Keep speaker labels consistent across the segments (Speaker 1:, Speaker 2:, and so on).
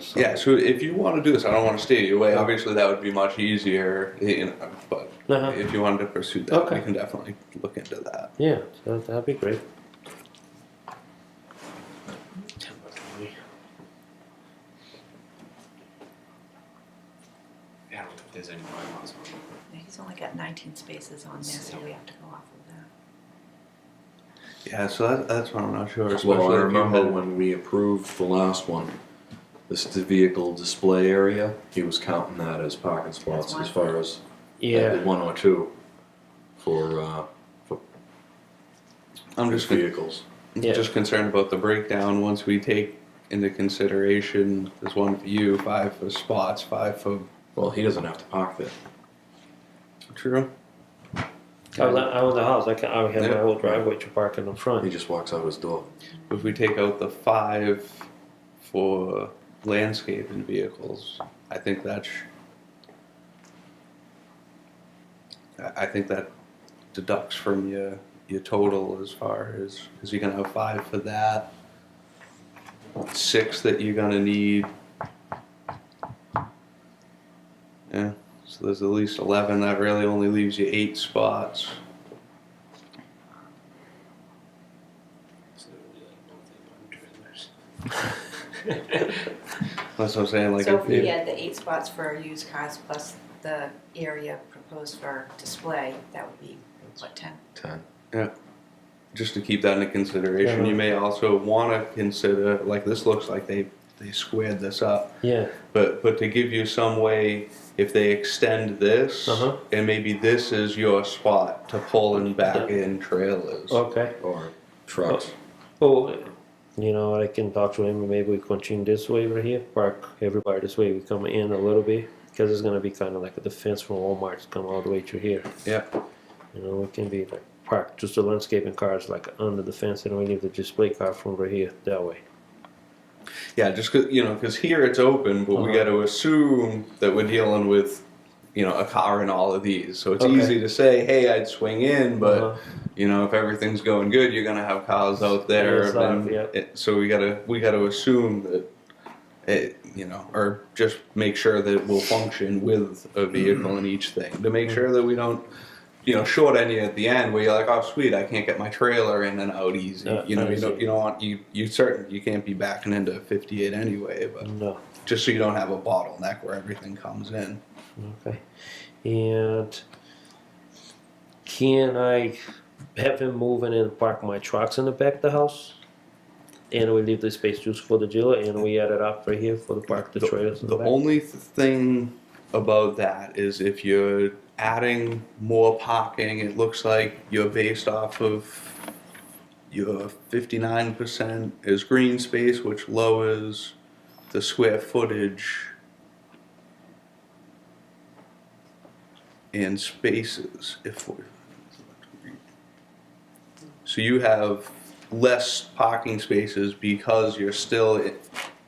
Speaker 1: so-
Speaker 2: Yeah, so if you want to do this, I don't want to steer you away. Obviously, that would be much easier, you know, but
Speaker 1: Uh-huh.
Speaker 2: if you wanted to pursue that,
Speaker 1: Okay.
Speaker 2: we can definitely look into that.
Speaker 1: Yeah, so that'd be great.
Speaker 3: Yeah, I don't think there's any bylaws on it.
Speaker 4: He's only got 19 spaces on there, so we have to go off of that.
Speaker 2: Yeah, so that, that's what I'm not sure.
Speaker 5: Well, I
Speaker 2: if you
Speaker 5: remember
Speaker 2: had-
Speaker 5: when we approved the last one, this is the vehicle display area, he was counting that as parking spots as far as
Speaker 1: Yeah,
Speaker 5: one or two for, uh, for
Speaker 2: I'm just con-
Speaker 5: vehicles.
Speaker 1: Yeah.
Speaker 2: just concerned about the breakdown. Once we take into consideration, there's one for you, five for spots, five for
Speaker 5: Well, he doesn't have to park there.
Speaker 2: true.
Speaker 1: I was, I was in the house. I, can, I have my
Speaker 2: Yeah.
Speaker 1: whole driveway to park in the front.
Speaker 5: He just walks out his door.
Speaker 2: If we take out the five for landscape and vehicles, I think that's. I I think that deducts from your your total as far as because you're gonna have five for that, six that you're gonna need. Yeah, so there's at least eleven. That really only leaves you eight spots.
Speaker 3: So there would be like no thing on trailers.
Speaker 2: That's what I'm saying. Like
Speaker 4: So
Speaker 2: if
Speaker 4: if we
Speaker 2: you-
Speaker 4: had the eight spots for used cars plus the area proposed for display, that would be, what, 10?
Speaker 5: Ten.
Speaker 2: just to keep that into consideration,
Speaker 1: Yeah.
Speaker 2: you may also want to consider like this looks like they they squared this up,
Speaker 1: Yeah,
Speaker 2: but but to give you some way if they extend this
Speaker 1: Uh-huh.
Speaker 2: and maybe this is your spot to pull and back
Speaker 1: Yeah. Oh.
Speaker 2: in trailers.
Speaker 1: okay.
Speaker 5: Or trucks.
Speaker 1: Well, you know, I can talk to him and maybe we continue this way over here, park everybody this way. We come in a little bit because it's going to be kind of like the fence from Walmart to come all the way through here.
Speaker 2: Yeah,
Speaker 1: You know, it can be like parked just the landscaping cars like under the fence and we leave the display car from over here that way.
Speaker 2: yeah, just 'cause- you know because here it's open, but we
Speaker 1: Uh-huh.
Speaker 2: got to assume that we're dealing with you know a car and all of these, so it's
Speaker 1: Okay.
Speaker 2: easy to say, hey, I'd swing in, but.
Speaker 1: Uh-huh.
Speaker 2: you know, if everything's going good, you're gonna have cows out there.
Speaker 1: Yes, uh,
Speaker 2: and
Speaker 1: yep.
Speaker 2: it- so we gotta we gotta assume that it, you know, or just make sure that it will function with a vehicle in each thing to make sure that we don't, you know, short any at the end where you're like, oh sweet, I can't get my trailer in and out easy.
Speaker 1: Yeah,
Speaker 2: you know, you
Speaker 1: easy.
Speaker 2: don't you don't want you you certain you can't be backing into 58 anyway, but
Speaker 1: no.
Speaker 2: just so you don't have a bottleneck where everything comes in.
Speaker 1: Okay. And can I have him move in and park my trucks in the back of the house? And we leave the space just for the dealer and we add it up right here for the park, the trailers in the
Speaker 2: The
Speaker 1: back?
Speaker 2: only th- thing about that is if you're adding more parking, it looks like you're based off of your fifty-nine percent is green space, which lowers the square footage and spaces if we so you have less parking spaces because you're still i-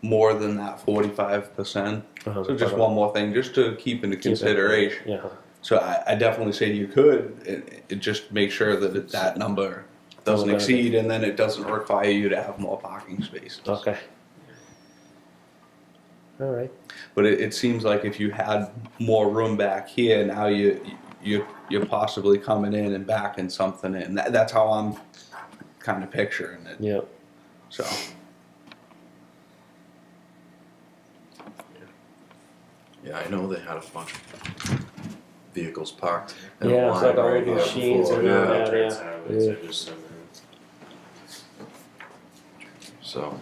Speaker 2: more than that forty-five percent.
Speaker 1: Uh-huh.
Speaker 2: So just one more thing, just to keep into
Speaker 1: Keep it.
Speaker 2: consideration.
Speaker 1: Yeah,
Speaker 2: So I, I definitely say you could, it, it just make sure that it, that number doesn't
Speaker 1: Okay.
Speaker 2: exceed, and then it doesn't require you to have more parking spaces.
Speaker 1: okay. All right,
Speaker 2: But it, it seems like if you had more room back here, now you you you're possibly coming in and backing something in. That, that's how I'm kind of picturing it.
Speaker 1: yeah.
Speaker 2: So.
Speaker 5: Yeah, I know they had a bunch of vehicles parked. in a
Speaker 1: Yeah, it's like
Speaker 5: line
Speaker 1: all
Speaker 5: right
Speaker 1: the
Speaker 5: here
Speaker 1: machines
Speaker 5: before,
Speaker 1: and all
Speaker 5: yeah.
Speaker 1: that,
Speaker 3: Turns
Speaker 1: yeah.
Speaker 3: out it's
Speaker 1: Yeah.
Speaker 3: just so many.
Speaker 5: So.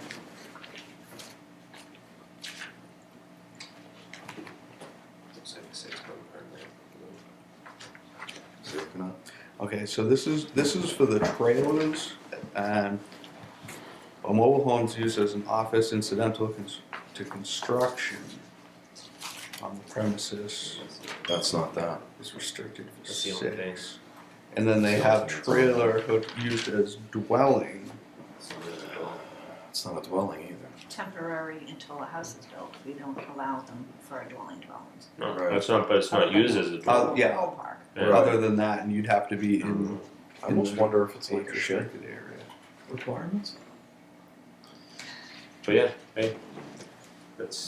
Speaker 3: Seventy-six, but apparently-
Speaker 2: Okay, so this is this is for the trailers. Um, a mobile home is used as an office incidental cons- to construction on the premises
Speaker 5: That's not that.
Speaker 2: is restricted to
Speaker 3: That's the only thing.
Speaker 2: six. And then they have trailer hook used as dwelling.
Speaker 3: So there's a lot.
Speaker 5: It's not a dwelling either.
Speaker 4: Temporary until a house is built, we don't allow them for a dwelling dwellings.
Speaker 5: Right.
Speaker 3: No, that's not, but it's not used as a
Speaker 2: Uh,
Speaker 3: dwelling.
Speaker 2: yeah,
Speaker 4: Whole park.
Speaker 3: Yeah.
Speaker 2: other than that, and you'd have to be in,
Speaker 5: Um, I almost wonder if it's
Speaker 2: in
Speaker 5: like
Speaker 2: the
Speaker 5: a shed
Speaker 2: restricted area.
Speaker 5: requirements.
Speaker 3: But yeah, hey, that's